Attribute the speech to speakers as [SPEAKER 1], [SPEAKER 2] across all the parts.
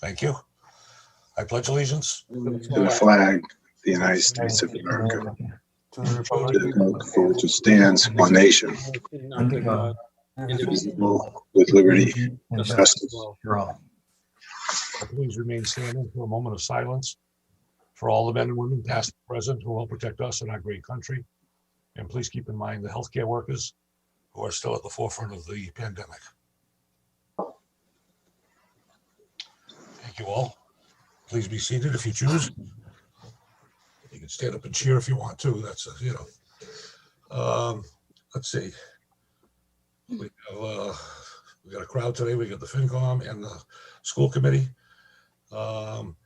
[SPEAKER 1] Thank you. I pledge allegiance
[SPEAKER 2] to the flag, of the United States of America,
[SPEAKER 1] to the
[SPEAKER 2] to the
[SPEAKER 1] republic
[SPEAKER 2] republic for which it stands, one nation,
[SPEAKER 3] Under God,
[SPEAKER 2] indivisible, with liberty
[SPEAKER 3] and
[SPEAKER 2] justice.
[SPEAKER 3] for all.
[SPEAKER 1] Please remain standing for a moment of silence for all the men and women, past and present, who will protect us and our great country. And please keep in mind the healthcare workers who are still at the forefront of the pandemic. Thank you all. Please be seated if you choose. You can stand up and cheer if you want to. That's, uh, you know. Um, Let's see. We have, uh, we got a crowd today. We got the FinCom and the school committee. Um,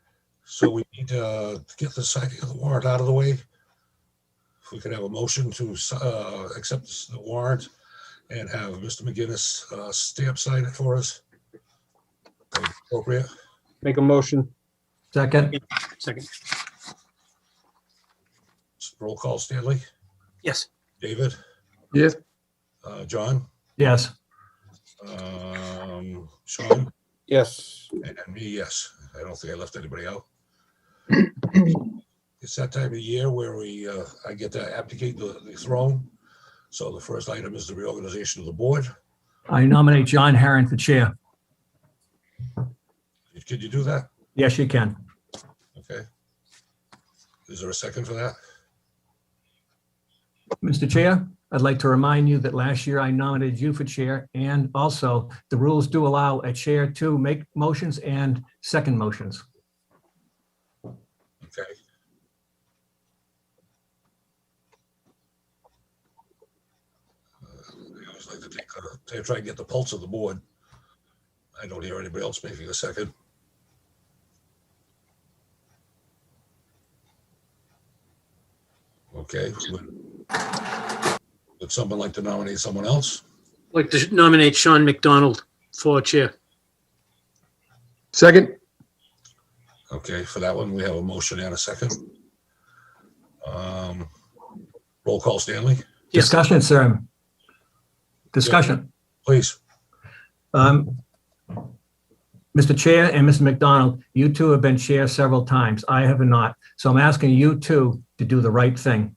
[SPEAKER 1] so we need to get the signing of the warrant out of the way. If we could have a motion to, uh, accept the warrant and have Mr. McGinnis, uh, stamp sign it for us. Appropriate.
[SPEAKER 4] Make a motion.
[SPEAKER 3] Second,
[SPEAKER 4] Second.
[SPEAKER 1] Roll call Stanley,
[SPEAKER 4] Yes.
[SPEAKER 1] David?
[SPEAKER 3] Yes.
[SPEAKER 1] Uh, John,
[SPEAKER 3] yes.
[SPEAKER 1] um, Sean,
[SPEAKER 4] Yes.
[SPEAKER 1] and me, yes. I don't think I left anybody out. It's that time of year where we, uh, I get to abdicate the the throne. So the first item is the reorganization of the board.
[SPEAKER 3] I nominate John Herron for chair.
[SPEAKER 1] Could you do that?
[SPEAKER 3] Yes, you can.
[SPEAKER 1] Okay. Is there a second for that?
[SPEAKER 3] Mr. Chair, I'd like to remind you that last year I nominated you for chair, and also the rules do allow a chair to make motions and second motions.
[SPEAKER 1] Okay. Uh, I always like to take, uh, to try and get the pulse of the board. I don't hear anybody else making a second. Okay. would- Would someone like to nominate someone else?
[SPEAKER 5] I'd like to nominate Sean McDonald for chair.
[SPEAKER 4] Second.
[SPEAKER 1] Okay, for that one, we have a motion and a second. Um, Roll call, Stanley,
[SPEAKER 5] Yes.
[SPEAKER 3] Discussion, sir. Discussion.
[SPEAKER 1] please.
[SPEAKER 3] Um, Mr. Chair and Mr. McDonald, you two have been chair several times. I have not. So I'm asking you two to do the right thing.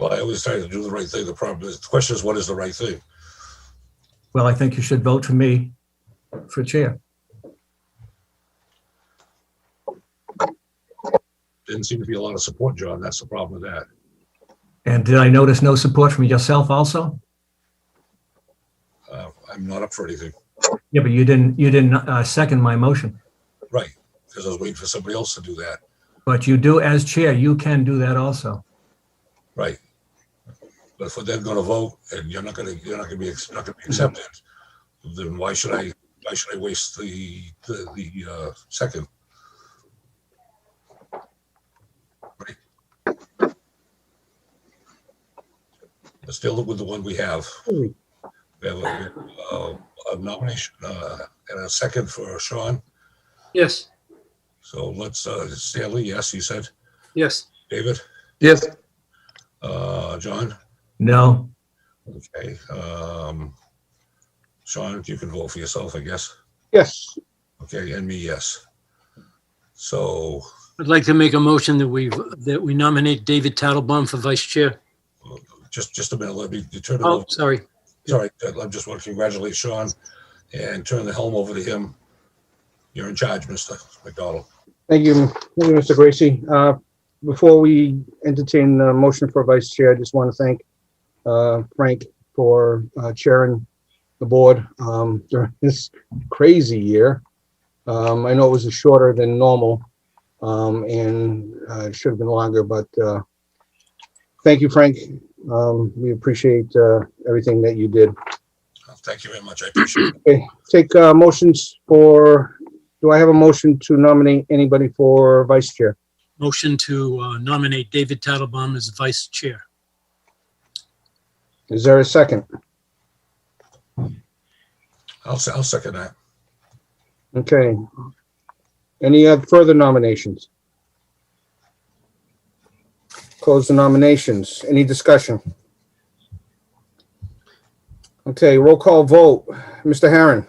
[SPEAKER 1] Well, I always try to do the right thing. The problem is, the question is, what is the right thing?
[SPEAKER 3] Well, I think you should vote for me for chair.
[SPEAKER 1] Didn't seem to be a lot of support, John. That's the problem with that.
[SPEAKER 3] And did I notice no support from yourself also?
[SPEAKER 1] Uh, I'm not up for anything.
[SPEAKER 3] Yeah, but you didn't, you didn't uh, second my motion.
[SPEAKER 1] Right, because I was waiting for somebody else to do that.
[SPEAKER 3] But you do, as chair, you can do that also.
[SPEAKER 1] Right. But if we're then gonna vote and you're not gonna, you're not gonna be, ex- not gonna be accepted, then why should I, why should I waste the, the, the, uh, second? Right. Let's deal with the one we have. We have a, we have, uh, a nomination, uh, and a second for Sean.
[SPEAKER 5] Yes,
[SPEAKER 1] So let's, uh, Stanley, yes, you said.
[SPEAKER 5] yes.
[SPEAKER 1] David,
[SPEAKER 4] Yes.
[SPEAKER 1] uh, John?
[SPEAKER 3] No,
[SPEAKER 1] Okay, um, Sean, you can vote for yourself, I guess.
[SPEAKER 4] Yes.
[SPEAKER 1] Okay, and me, yes. So,
[SPEAKER 5] I'd like to make a motion that we, that we nominate David Tattlebaum for vice chair.
[SPEAKER 1] just, just a minute, let me turn it
[SPEAKER 5] Oh,
[SPEAKER 1] over.
[SPEAKER 5] sorry.
[SPEAKER 1] Sorry, I just want to congratulate Sean and turn the helm over to him. You're in charge, Mr. McDonald.
[SPEAKER 4] Thank you, Thank you, Mr. Gracie. Uh, Before we entertain the motion for vice chair, I just want to thank uh, Frank for uh, chairing the board um, during this crazy year. Um, I know it was shorter than normal um, and uh, it should have been longer, but uh, thank you, Frank. Um, We appreciate uh, everything that you did.
[SPEAKER 1] Thank you very much, I appreciate it.
[SPEAKER 4] Okay, take uh, motions for, do I have a motion to nominate anybody for vice chair?
[SPEAKER 5] Motion to uh, nominate David Tattlebaum as vice chair.
[SPEAKER 4] Is there a second?
[SPEAKER 1] I'll, se- I'll second that.
[SPEAKER 4] Okay. Any other further nominations? Close the nominations. Any discussion? Okay, roll call vote. Mr. Herron,